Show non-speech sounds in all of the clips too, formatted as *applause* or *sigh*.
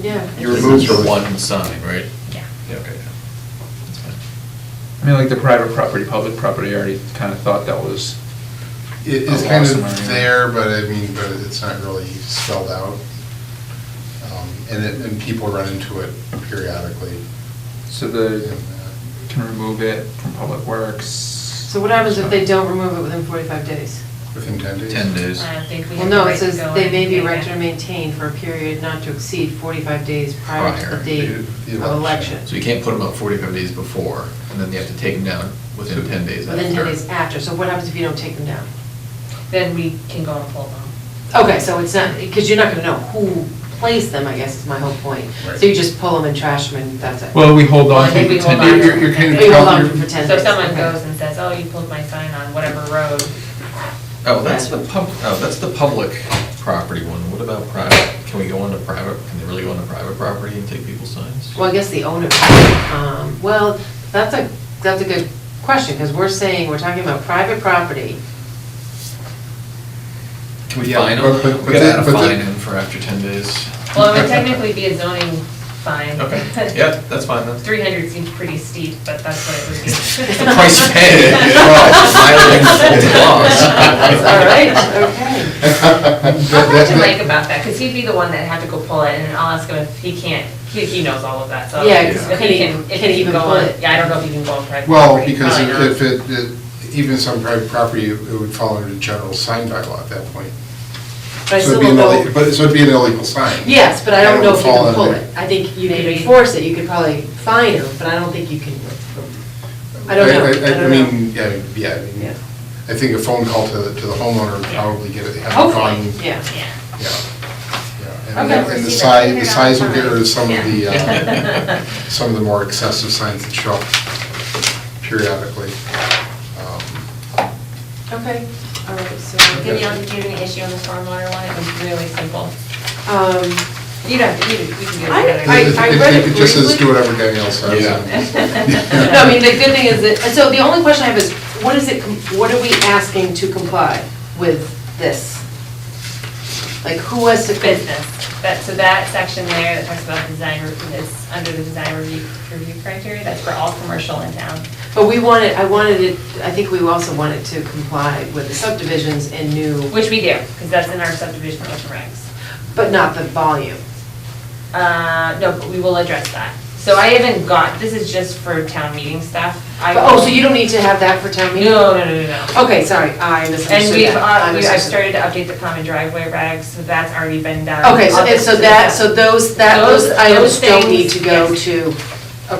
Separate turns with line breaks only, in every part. Yeah.
You removed
This is
the-
one sign, right?
Yeah.
Yeah, okay, yeah. That's fine.
I mean, like the private property, public property, I already kind of thought that was,
It is
Oh,
kind
awesome,
of
yeah.
there, but I mean, but it's not really spelled out. Um, And it, and people run into it periodically.
so
And,
the,
uh,
can remove it from Public Works. So
So what happens if they don't remove it within 45 days?
Within ten days.
Ten days.
I don't think we
Well,
have the
no,
right
it
to
says
go
they
and
may be
take it.
rented or maintained for a period not to exceed 45 days prior to the
Prior
date
to the
of
election.
election.
So you can't put them up forty-five days before, and then you have to take them down within ten days after.
Within 10 days after, so what happens if you don't take them down?
Then we can go and pull them.
Okay, so it's not, because you're not going to know who placed them, I guess is my whole point.
Right.
So you just pull them and trash them and that's it?
Well, we hold
Well,
on
I
to
think
the
we hold
ten
on to
days.
You're-
it.
you're kind of
You hold
count-
on
you're-
for 10
So if
days,
someone
okay.
goes and says, oh, you pulled my sign on whatever road,
Oh, that's the pub, oh, that's the public property one. What about private? Can we go onto private, can they really go onto private property and take people's signs?
Well, I guess the owner, um, well, that's a, that's a good question, because we're saying, we're talking about private property.
Can we
Yeah,
fine
but-
them?
but-
We
but
gotta add
the-
a
but the-
fine in for after ten days. *laughs*
well, it would technically be a zoning fine. *laughs*
Okay, yeah, that's fine, that's. *laughs*
Three hundred seems pretty steep, but that's what it would
*laughs*
be.
The price you pay.
*laughs*
That's all right, okay.
I'll talk to Mike about that, because he'd be the one that'd have to go pull it, and I'll ask him if he can't, he, he knows all of that, so.
Yeah,
if
'cause
he
can he-
if
can he
he
even
go
pull
on-
it?
Yeah, I don't know if he can go on
*laughs*
private
Well,
property,
because
probably not.
if it, it- even some private property, it would fall under the general sign bylaw at that point.
But
So
I still
it'd be an
don't
ille-
know-
But, so it'd be an illegal sign.
Yes, but I
And
don't know
would
if you
fall
can pull
under-
it. I think you could
Maybe.
enforce it, you could probably fine them, but I don't think you can, I don't know, I
I
don't know.
mean, yeah, yeah, I mean,
Yeah.
I think a phone call to, the- to the homeowner would probably get it, have it gone.
Hopefully, yeah.
Yeah.
Yeah, yeah. And
Okay.
the- and the size, the size will get rid of some of the, uh,
*laughs*
*laughs*
Yeah.
some of the more excessive signs that show up periodically. Um,
Okay, all right, so.
Danielle, did you have any issue on the stormwater one? It was really simple.
*laughs* Um,
You don't, you, you can do
I-
it.
I-
if- if-
read it
if Just as
briefly.
do whatever Danielle says.
Yeah.
No, I mean, the good thing is that, and so the only question I have is, what is it, com- what are we asking to comply with this? Like, who has to?
It's business, that, so that section there that talks about design, re- is under the design review, review criteria, that's for all commercial in town.
But we wanted, I wanted it, I think we also wanted to comply with the subdivisions and new,
Which we do, because that's in our subdivision rules and regs.
but not the volume.
Uh, no, but we will address that. So I haven't got, this is just for town meeting stuff. I-
But, Oh, so you don't need to have that for town meeting?
No, no, no, no, no.
Okay, sorry, I
And
misunderstood
we've,
that. I
uh, we- I've
misunderstood.
started to update the common driveway regs, so that's already been done.
Okay, so,
All
and
this
so
is-
that, so those, that, those
Those-
items
those
don't need
things,
to go
yes.
to,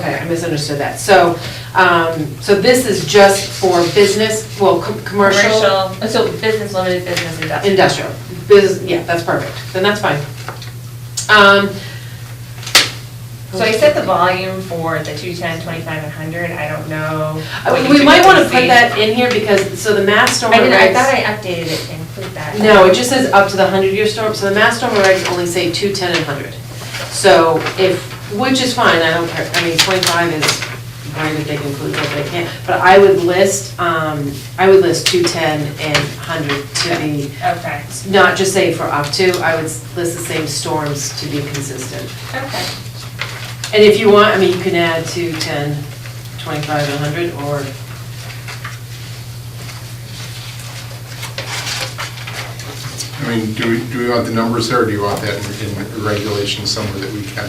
okay, I misunderstood that. So, um, so this is just for business, well, com- commercial,
Commercial, so business, limited business, industrial.
industrial. Bus, yeah, that's perfect, then that's fine. Um.
So I set the volume for the 210, 25, and 100, I don't know.
Uh,
what you
We might wanna
typically
put
see.
that in here because, so the mass storm.
I didn't, I
regs-
thought I updated it to include that.
No, it just says up to the hundred year storm, so the mass storm regs only say two, ten, and hundred. So if, which is fine, I don't care, I mean, twenty-five is, why did they conclude what they can? But I would list, um, I would list two, ten, and hundred to be,
Okay,
not just say for up to, I would s- list the same storms to be consistent.
okay.
And if you want, I mean, you can add two, ten, twenty-five, and hundred, or,
I mean, do we, do we want the numbers there, or do you want that in in regulation somewhere that we can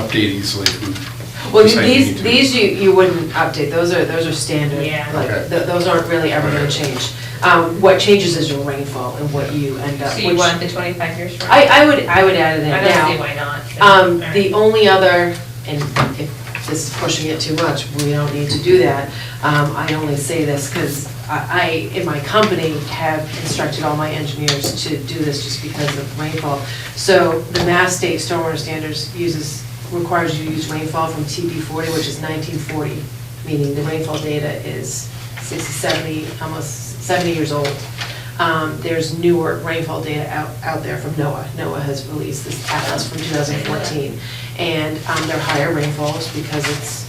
update easily? if we
well,
decide we need
these,
to?
these you, you wouldn't update, those are, those are standard.
Yeah.
Like,
Okay.
th- those aren't really ever gonna change. Um, what changes is your rainfall and what you end up,
So
which.
you want the 25 years from?
I, I would, I would add it in
I don't see
now.
why not.
Um,
All
the
right.
only other, and if this is pushing it too much, we don't need to do that. Um, I only say this because I, I, in my company, have instructed all my engineers to do this just because of rainfall. So the Mass State Stormwater Standards uses, requires you to use rainfall from TB forty, which is nineteen forty, meaning the rainfall data is 60, 70, almost 70 years old. Um, There's newer rainfall data out, out there from NOAA. NOAA has released this atlas from 2014, and um, they're higher rainfalls because it's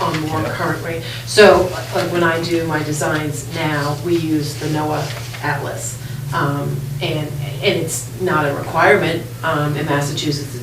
on more current rain. So, like, when I do my designs now, we use the NOAA atlas, Um, and, and it's not a requirement um, in Massachusetts,